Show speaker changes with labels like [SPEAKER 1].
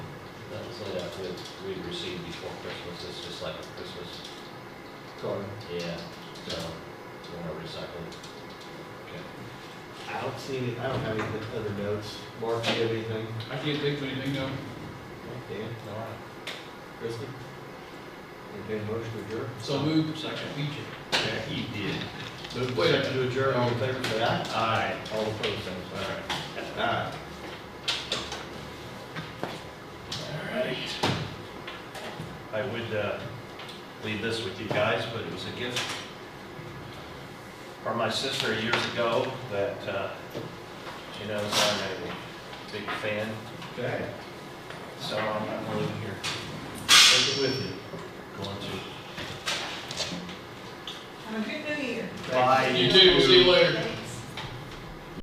[SPEAKER 1] we received before Christmas, it's just like a Christmas,
[SPEAKER 2] Sorry.
[SPEAKER 1] yeah, so, we're gonna recycle.
[SPEAKER 2] I don't see any, I don't have any other notes. Mark, do you have anything?
[SPEAKER 3] I can't think of anything though.
[SPEAKER 2] Dan,
[SPEAKER 1] All right.
[SPEAKER 2] Kristen? Entertained a motion to adjourn?
[SPEAKER 3] So moved, second, feature.
[SPEAKER 1] He did.
[SPEAKER 2] Move
[SPEAKER 3] Wait.
[SPEAKER 2] second to adjourn, all in favor, say aye.
[SPEAKER 1] Aye.
[SPEAKER 2] All opposed, same
[SPEAKER 1] All
[SPEAKER 2] sign.
[SPEAKER 1] right.
[SPEAKER 2] Aye.
[SPEAKER 1] All right. I would uh, leave this with you guys, but it was a gift from my sister years ago that uh, she knows I'm a big fan,
[SPEAKER 2] Okay,
[SPEAKER 1] so I'm I'm leaving here,
[SPEAKER 2] take it with you.
[SPEAKER 1] going to.
[SPEAKER 4] Have a good new year.
[SPEAKER 2] Thank
[SPEAKER 1] Bye.
[SPEAKER 3] You too, we'll see you later.
[SPEAKER 4] Thank you.